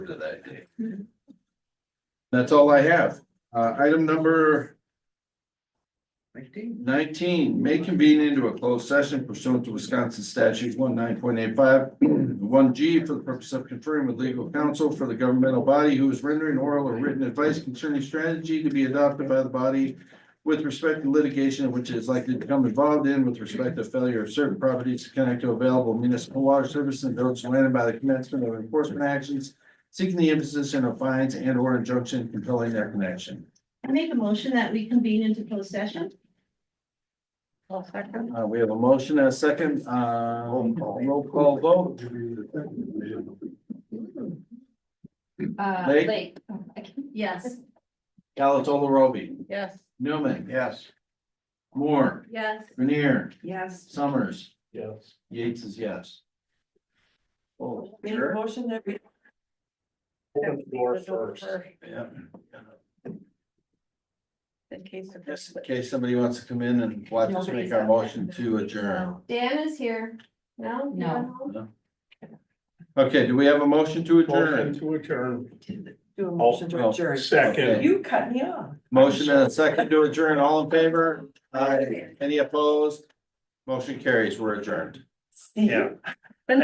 today. That's all I have. Uh, item number Nineteen. nineteen, may convene into a closed session pursuant to Wisconsin statute one nine point eight five. One G for the purpose of conferring with legal counsel for the governmental body who is rendering oral or written advice concerning strategy to be adopted by the body. With respect to litigation which it is likely to become involved in with respect to failure of certain properties to connect to available municipal water service and village land by the commencement of enforcement actions. Seeking the imposition of fines and or injunction compelling their connection. I make a motion that we convene into closed session. Uh, we have a motion and a second, uh, roll call vote. Uh, Lake? Lake. Oh, I can't- Yes. Galatola Roby, Yes. Newman, Yes. Moore, Yes. Grenier, Yes. Summers, Yes. Yates is yes. Oh, Make a motion that we. Open the door first. yeah. In case of Just this. in case somebody wants to come in and watch us make our motion to adjourn. Dan is here. No? No. You're at home? Okay, do we have a motion to Motion adjourn? to adjourn. Do a motion to Oh, adjourn. Okay. Second. You cut me off. Motion and a second to adjourn, all in favor? Aye. Any opposed? Motion carries, we're adjourned. See? Yeah.